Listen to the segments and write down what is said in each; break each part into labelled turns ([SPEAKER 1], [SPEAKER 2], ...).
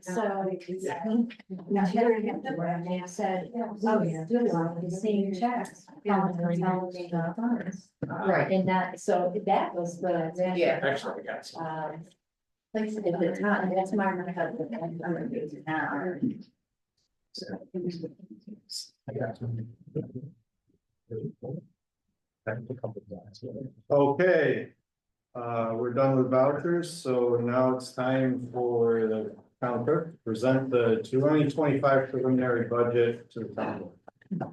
[SPEAKER 1] So. um, Now Hillary had the word and I said, oh, yeah, do it on the same checks. on the consolidated funds.
[SPEAKER 2] Right.
[SPEAKER 1] And that, so that was the.
[SPEAKER 2] Yeah.
[SPEAKER 3] Actually, guys.
[SPEAKER 1] Um. Like, at the time, that's my, my husband, I'm gonna do it now.
[SPEAKER 3] Okay, uh, we're done with vouchers, so now it's time for the town clerk to present the twenty twenty-five preliminary budget to the town. board.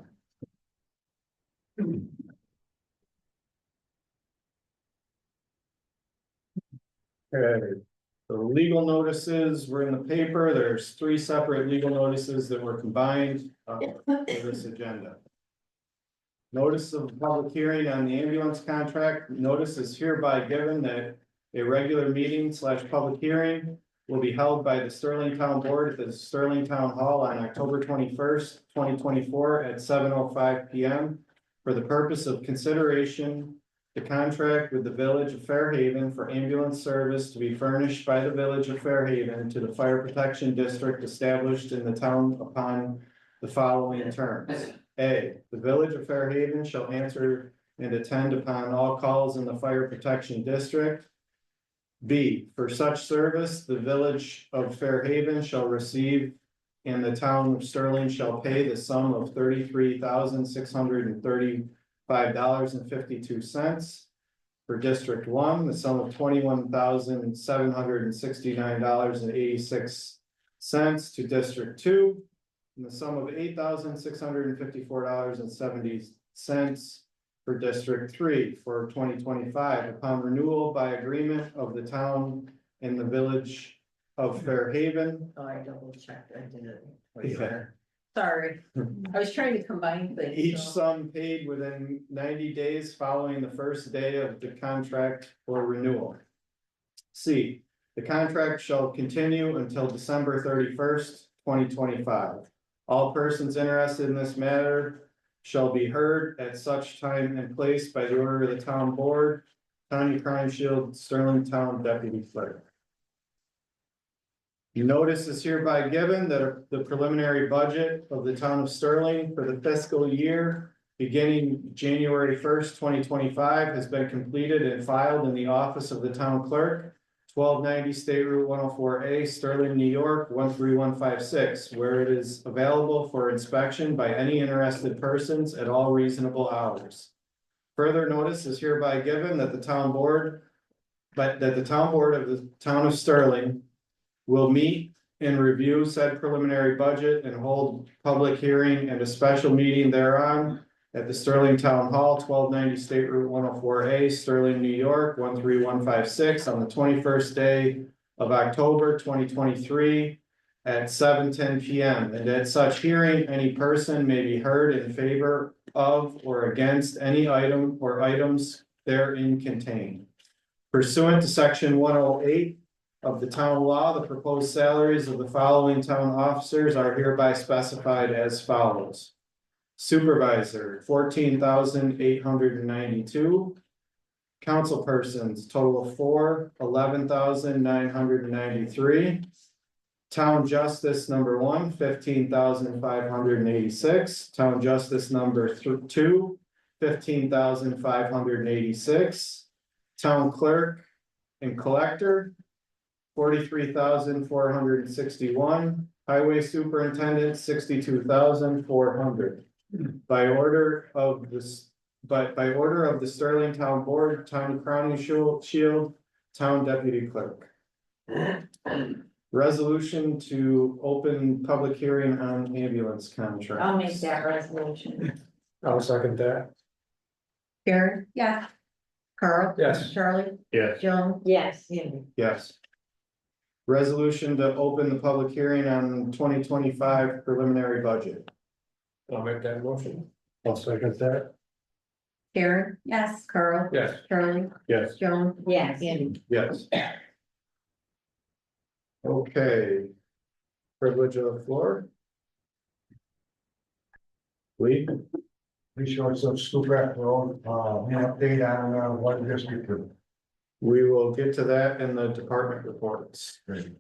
[SPEAKER 3] Okay, the legal notices were in the paper, there's three separate legal notices that were combined, uh, for this agenda. Notice of public hearing on the ambulance contract, notice is hereby given that a regular meeting slash public hearing. Will be held by the Sterling Town Board at the Sterling Town Hall on October twenty first, twenty twenty four at seven oh five P M. For the purpose of consideration, the contract with the Village of Fairhaven for ambulance service to be furnished by the Village of Fairhaven to the Fire Protection District established in the town upon the following terms. A, the village of Fairhaven shall answer and attend upon all calls in the fire protection district. B, for such service, the village of Fairhaven shall receive and the town of Sterling shall pay the sum of thirty-three thousand six hundred and thirty-five dollars and fifty-two cents. For District One, the sum of twenty-one thousand seven hundred and sixty-nine dollars and eighty-six cents to District Two in the sum of eight thousand six hundred and fifty-four dollars and seventy cents for District Three for twenty twenty-five upon renewal by agreement of the town and the village of Fairhaven.
[SPEAKER 2] Oh, I double checked, I did it.
[SPEAKER 3] Yeah.
[SPEAKER 2] Sorry, I was trying to combine things.
[SPEAKER 3] Each
[SPEAKER 2] so-
[SPEAKER 3] sum paid within ninety days following the first day of the contract or renewal. C, the contract shall continue until December thirty-first, twenty twenty-five. All persons interested in this matter shall be heard at such time and place by the order of the town board, county crime shield, Sterling Town Deputy Clerk. Notice is hereby given that the preliminary budget of the town of Sterling for the fiscal year beginning January first, twenty twenty-five has been completed and filed in the office of the town clerk, twelve ninety State Route one oh four A, Sterling, New York, one three one five six, where it is available for inspection by any interested persons at all reasonable hours. Further notice is hereby given that the town board, but that the town board of the town of Sterling will meet and review said preliminary budget and hold public hearing and a special meeting thereon at the Sterling Town Hall, twelve ninety State Route one oh four A, Sterling, New York, one three one five six, on the twenty-first day of October, twenty twenty-three at seven ten P M. And at such hearing, any person may be heard in favor of or against any item or items therein contained. Pursuant to section one oh eight of the town law, the proposed salaries of the following town officers are hereby specified as follows. Supervisor, fourteen thousand eight hundred and ninety-two. Councilpersons, total of four, eleven thousand nine hundred and ninety-three. Town justice number one, fifteen thousand five hundred and eighty-six. Town justice number thr- two, fifteen thousand five hundred and eighty-six. Town clerk and collector, forty-three thousand four hundred and sixty-one, highway superintendent, sixty-two thousand four hundred. By order of this, but by order of the Sterling Town Board, Town Crowning Shield, Shield, Town Deputy Clerk. Resolution to open public hearing on ambulance contracts.
[SPEAKER 2] I'll make that resolution.
[SPEAKER 4] I'll second that.
[SPEAKER 2] Karen? Yeah. Carl?
[SPEAKER 4] Yes.
[SPEAKER 2] Charlie?
[SPEAKER 4] Yes.
[SPEAKER 2] Joan?
[SPEAKER 1] Yes.
[SPEAKER 2] Andy?
[SPEAKER 3] Yes. Resolution to open the public hearing on twenty twenty-five preliminary budget.
[SPEAKER 4] I'll make that motion. I'll second that.
[SPEAKER 2] Karen? Yes. Carl?
[SPEAKER 4] Yes.
[SPEAKER 2] Charlie?
[SPEAKER 4] Yes.
[SPEAKER 2] Joan?
[SPEAKER 1] Yes.
[SPEAKER 2] Andy?
[SPEAKER 3] Yes. Okay. Privilege of the floor. Lee,
[SPEAKER 4] Be sure it's a school rep road, uh, an update on, uh, what district.
[SPEAKER 3] we will get to that in the department reports.
[SPEAKER 4] Great.